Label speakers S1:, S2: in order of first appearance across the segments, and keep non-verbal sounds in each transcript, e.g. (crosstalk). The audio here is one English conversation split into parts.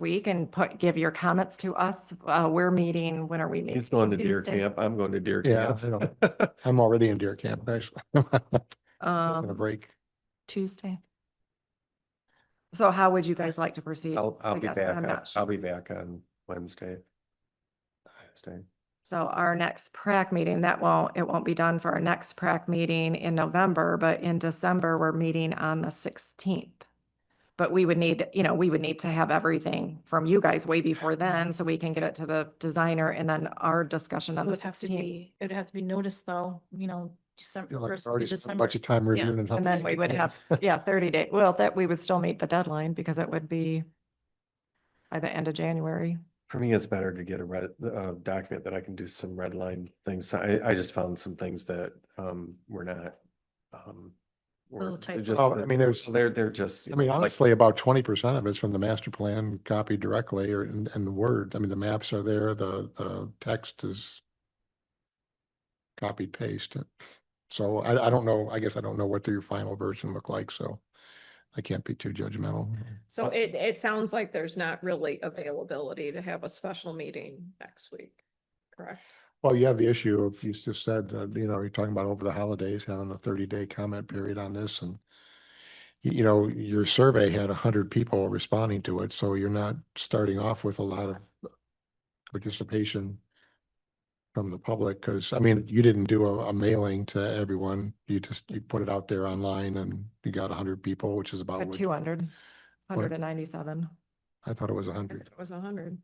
S1: week and put, give your comments to us. Uh, we're meeting, when are we meeting?
S2: He's going to deer
S1: Tuesday.
S2: camp. I'm going to deer
S3: Yeah,
S2: camp. (laughs)
S3: I don't- I'm already in deer camp, actually. (laughs) Taking a
S1: Um,
S3: break.
S1: Tuesday. So how would you guys like to proceed?
S2: I'll, I'll
S1: I
S2: be
S1: guess
S2: back.
S1: I'm
S2: on-
S1: not sure.
S2: I'll be back on Wednesday. Wednesday.
S1: So our next PrAC meeting, that won't, it won't be done for our next PrAC meeting in November, but in December, we're meeting on the sixteenth. But we would need, you know, we would need to have everything from you guys way before then, so we can get it to the designer and then our discussion
S4: It
S1: on the
S4: would have to
S1: sixteenth.
S4: be, it would have to be noticed though, you know,
S3: You
S4: December,
S3: know, like,
S4: first
S3: I've already spent a
S4: December.
S3: bunch of time
S4: Yeah.
S3: reviewing. nothing.
S1: And then we would
S3: (laughs)
S1: have, yeah, thirty day, well, that, we would still meet the deadline because it would be by the end of January.
S2: For me, it's better to get a red, uh, document that I can do some red line things. So I, I just found some things that, um, were not, um. were-
S4: Little
S2: they're
S4: typo.
S2: just-
S3: Oh, I mean, there's-
S2: They're, they're just.
S3: I mean,
S2: like,
S3: honestly, about twenty percent of it's from the master plan copied directly or in, in Word. I mean, the maps are there, the, the text is copy paste. So I, I don't know, I guess I don't know what your final version look like, so I can't be too judgmental.
S5: So
S3: Uh,
S5: it, it sounds like there's not really availability to have a special meeting next week, correct?
S3: Well, you have the issue of, you just said, that you know, you're talking about over the holidays, having a thirty day comment period on this and you, you know, your survey had a hundred people responding to it, so you're not starting off with a lot of participation from the public, because I mean, you didn't do a, a mailing to everyone. You just, you put it out there online and you got a hundred people, which is
S2: Oh,
S3: about,
S1: At
S3: what-
S1: 200, 197.
S3: I thought it was a
S5: I thought
S3: hundred.
S5: It was a hundred.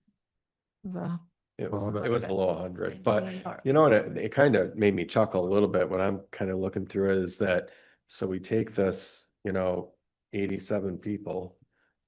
S1: So,
S2: It was,
S3: Well,
S2: it was
S1: that-
S2: below a hundred, but
S1: Or-
S2: you know what? It, it kind of made me chuckle a little bit when I'm kind of looking through it is that, so we take this, you know, eighty-seven people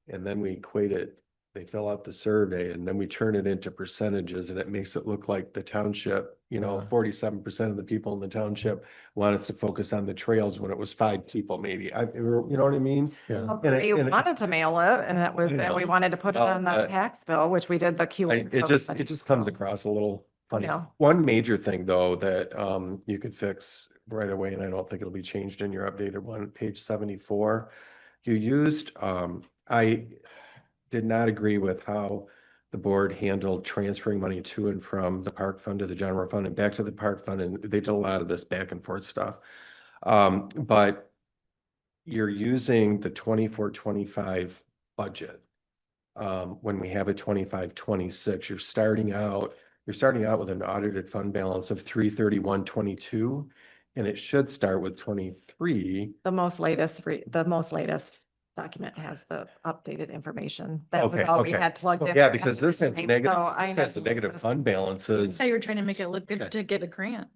S2: and then we equate it, they fill out the survey and then we turn it into percentages and it makes it look like the township, you know,
S3: Yeah.
S2: forty-seven percent of the people in the township want us to focus on the trails when it was five people maybe. I, you know what I mean?
S3: Yeah,
S2: And it-
S1: We
S2: and it-
S1: wanted to mail it and that was, and we
S2: Yeah.
S1: wanted to put it
S2: Oh,
S1: on the
S2: uh,
S1: tax bill, which we did the Q.
S2: I-
S1: and
S2: It
S1: code
S2: just,
S1: study.
S2: it just comes across a little funny.
S1: No.
S2: One major thing though, that um, you could fix right away, and I don't think it'll be changed in your updated one, page seventy-four. You used, um, I did not agree with how the board handled transferring money to and from the park fund to the general fund and back to the park fund, and they did a lot of this back and forth stuff. Um, but you're using the twenty-four, twenty-five budget um, when we have a twenty-five, twenty-six, you're starting out, you're starting out with an audited fund balance of three thirty-one, twenty-two. And it should start with twenty-three.
S1: The most latest, re- the most latest document has the updated information. That was
S2: Okay,
S1: all we
S2: okay.
S1: had plugged in.
S2: Yeah,
S1: for
S2: because this has
S1: everything,
S2: negative,
S1: so I
S2: this
S1: know
S2: has
S1: you
S2: negative
S1: noticed.
S2: fund balances.
S4: So you're trying to make it look
S3: Okay.
S4: good to get a grant.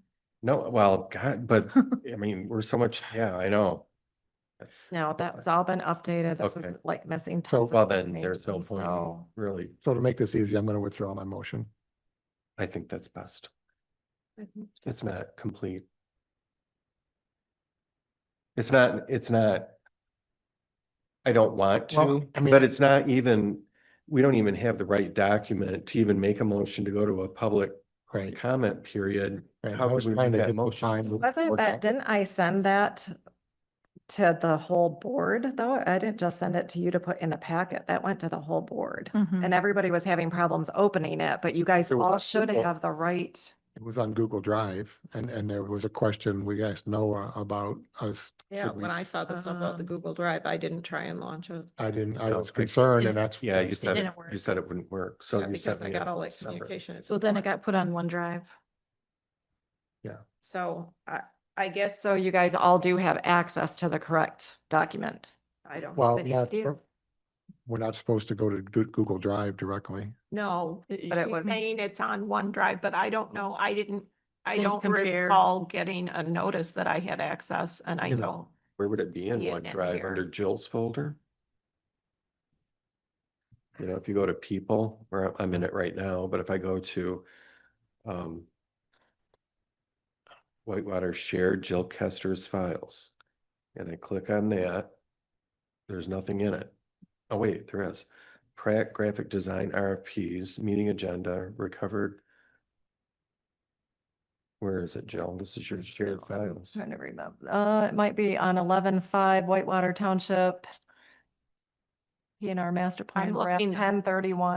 S2: No, well,
S1: (laughs)
S2: God, but I mean, we're so much, yeah, I know. That's,
S1: No, that's all been updated. This is
S2: Okay.
S1: like missing.
S3: So,
S1: tons of
S2: well, then there's no
S1: information,
S2: point, in
S1: so-
S2: really.
S3: so to make this easy, I'm going to withdraw my motion.
S2: I think that's best. It's not complete. It's not, it's not. I don't want
S3: Well,
S2: to,
S3: I mean-
S2: but it's not even, we don't even have the right document to even make a motion to go to a public
S3: Right.
S2: comment period.
S3: right.
S2: How
S3: I was
S2: could we make
S3: trying to
S2: that
S3: get the
S2: motion?
S3: time-
S1: Wasn't
S3: work
S1: that,
S3: out.
S1: didn't I send that to the whole board though? I didn't just send it to you to put in the packet. That went to the whole board.
S4: Mhm.
S1: And everybody was having problems opening it, but you guys
S3: It was
S1: all
S3: on
S1: should
S3: Google.
S1: have the right.
S3: It was on Google Drive and, and there was a question we asked Noah about us.
S5: Yeah,
S3: should we-
S5: when I saw this about the
S1: Um,
S5: Google Drive, I didn't try and launch it.
S3: I didn't, I
S2: No,
S3: was
S2: I-
S3: concerned and that's.
S2: Yeah, you said, it-
S4: didn't work.
S2: you said it wouldn't work, so
S5: Yeah,
S2: you sent
S5: Because I
S2: me.
S5: got all
S2: a
S5: that
S2: separate-
S5: communication.
S4: So then it got put on OneDrive.
S5: So I, I guess,
S1: So you guys all do have access to the correct document.
S5: I don't.
S3: Well,
S5: think
S3: not,
S5: you do.
S3: we're not supposed to go to Goo- Google Drive directly.
S5: No,
S1: But it
S5: you're
S1: would-
S5: saying it's on OneDrive, but I don't know. I didn't, I
S4: Didn't
S5: don't
S4: compare.
S5: recall getting a notice that I had access and I
S3: You know.
S5: don't.
S2: Where would it be in
S5: See it in
S2: OneDrive?
S5: here.
S2: Under Jill's folder? You know, if you go to people, where I'm in it right now, but if I go to um Whitewater shared Jill Kester's files, and I click on that, there's nothing in it. Oh, wait, there is. Pratt Graphic Design RFPs, meeting agenda, recovered. Where is it, Jill? This is your shared files.
S1: Trying to remember. Uh, it might be on eleven five Whitewater Township. in our master plan,
S5: looking-
S1: ten thirty-one.